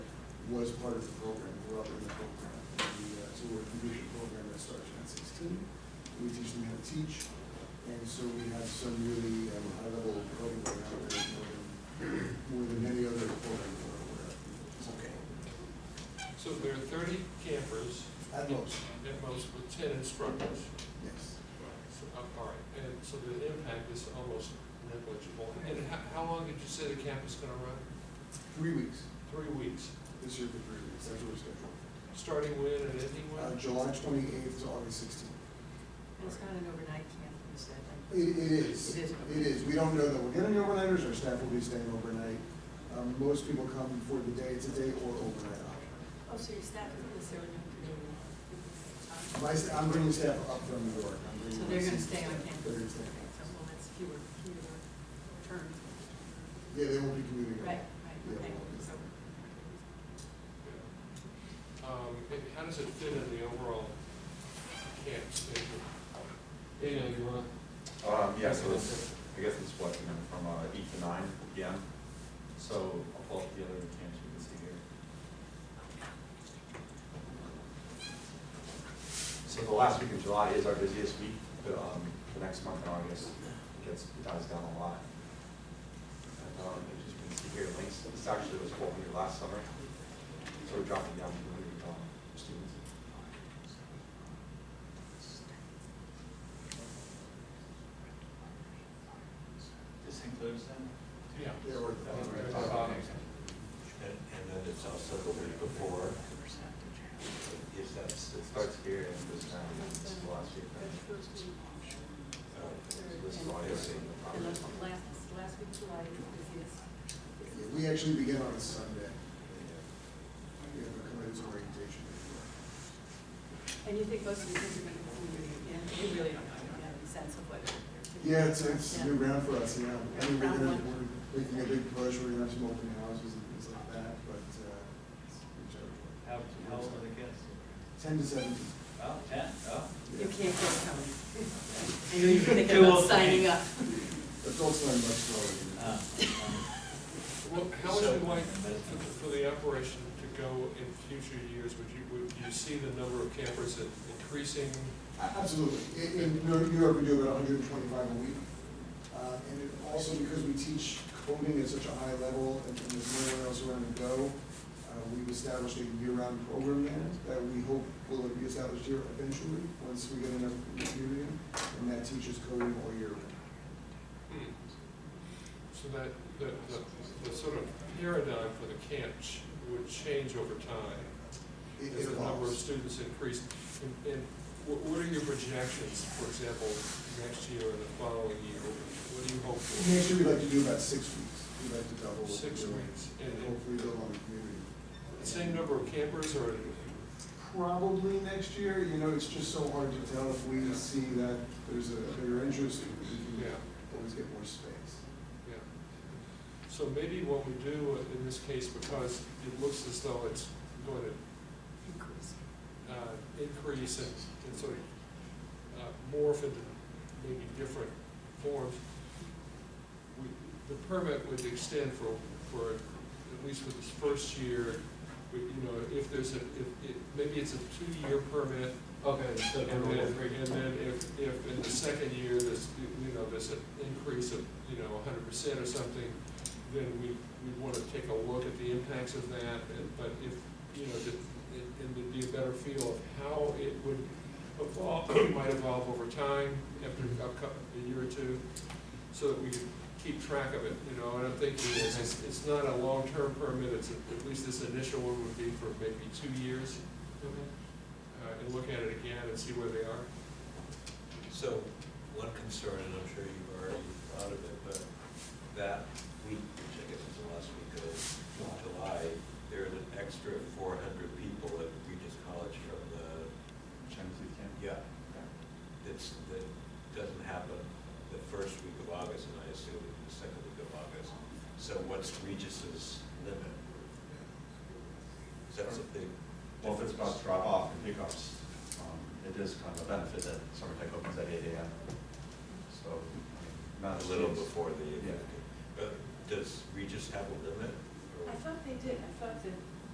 was part of the program, we're up in the program. We, uh, So we're a computer program that starts at sixteen, we teach them how to teach, and so we have some really um, high-level programming out there, more than- more than any other program we're aware of. Okay. So there are thirty campers, At most, at most with ten instructors. yes. So, uh, All right, and so the impact is almost negligible. And how, how long did you say the camp is gonna run? Three weeks, Three weeks, this year for three weeks, that's what we're scheduling. starting when and ending Uh, when? July twenty-eighth to August sixteenth. It's not an overnight camp, you said, right? It, it is, It it is, is. we don't know that we're getting overnighters, our staff will be staying overnight. Um, most people come for the day to day or overnight option. Oh, so your staff isn't necessarily going to do it. My, sta- I'm bringing staff up from New York. I'm bringing So they're my gonna stay on staff. campus? They're gonna stay on So, campus. well, that's fewer, fewer terms. Yeah, they won't be commuting. at all. Right, right, Yeah, they okay, won't be. so. Um, and how does it fit in the overall camp schedule? Dana, you want? Um, yeah, so it's, I guess it's what, you know, from uh, eight to nine PM, so I'll pull up the other cans you can see here. So the last week of July is our busiest week, but, um, the next month in August gets, dies down a lot. And, um, as you can see here, links, this actually was what we did last summer, so we're dropping down to hundred, um, students. This includes them? Yeah. Yeah, or- And, and then it's also the week before. If that's, It starts here and goes down, it's the last week. That's first week. uh, So this is all you're seeing. And that's the last, the last week of July is busiest. Yeah, We actually begin on a Sunday. We have a commencement orientation. And you think most of the kids are going to be moving again? You really don't know, you don't have any sense of what they're. Yeah, it's, it's Yeah. new ground for us, you know. I mean, we're Round gonna, one. we're making a big push, we're gonna have some open houses and things like that, but, uh, it's, it's our- How, how old are the kids? ten to seventeen. Oh, ten, oh. You Yeah. can't go coming. I know you're thinking Too about old for signing me. up. Adults learn much slower than Uh, um, that. Well, how would you like So- for the operation to go in future years? Would you, would you see the number of campers in- increasing? A- Absolutely. In, in New New York, we do about hundred and twenty-five a week. Uh, and it also because we teach coding at such a high level and and there's nowhere else around to go, uh, we've established a year-round program now that we hope will be established here eventually, once we get enough in the community, and that teaches coding all year round. Hmm. So that, the, the, the sort of paradigm for the camp ch- would change over time It- as It the number of evolves. students increase. And, and wh- what are your projections, for example, next year or the following year? What do you hope for? Next year, we'd like to do about six weeks. We'd like to double. what Six we're doing, weeks. And And- hopefully build on the community. The Same number of campers or? Probably next year, you know, it's just so hard to tell if we see that there's a bigger interest, we Yeah. can always get more space. Yeah. So maybe what we do in this case, because it looks as though it's going to Increase. uh, increase and and sort of uh, morph into maybe different forms, we- the permit would extend for, for, at least for this first year, we- you know, if there's a, if, if, maybe it's a two-year permit, Okay, so and number then, three. and then if, if in the second year, there's, you know, there's an increase of, you know, hundred percent or something, then we, we wanna take a look at the impacts of that, and- but if, you know, that, and- and there'd be a better feel of how it would evolve, might evolve over time, after a cou- a year or two, so that we could keep track of it, you know, and I'm thinking is, it's, it's not a long-term permit, it's, at least this initial one would be for maybe two years uh, and look at it again and see where they are. So, one concern, and I'm sure you've already thought of it, but that week, which I guess is the last week of July, there's an extra four hundred people at Regis College from the, Chinese camp. yeah, that's, that doesn't happen the first week of August, and I assume the second week of August. So what's Regis's limit? That's a big Well, if it's difference. about drop off and pickups, um, it is kind of a benefit that summer tech opens at eight AM. So, not A little before the, Yeah. but does Regis have a limit? or- I thought they did, I thought that